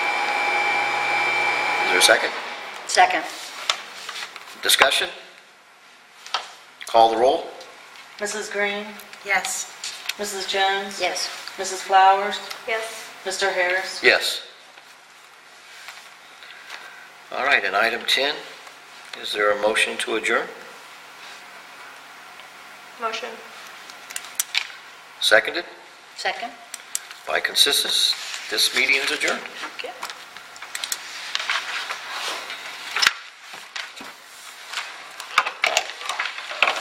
there a second? Second. Discussion? Call the roll? Mrs. Green? Yes. Mrs. Jones? Yes. Mrs. Flowers? yes, Mr. Harris? Yes. All right, and item 10, is there a motion to adjourn? motion, Seconded Second. by consensus, this meeting is adjourned. Okay.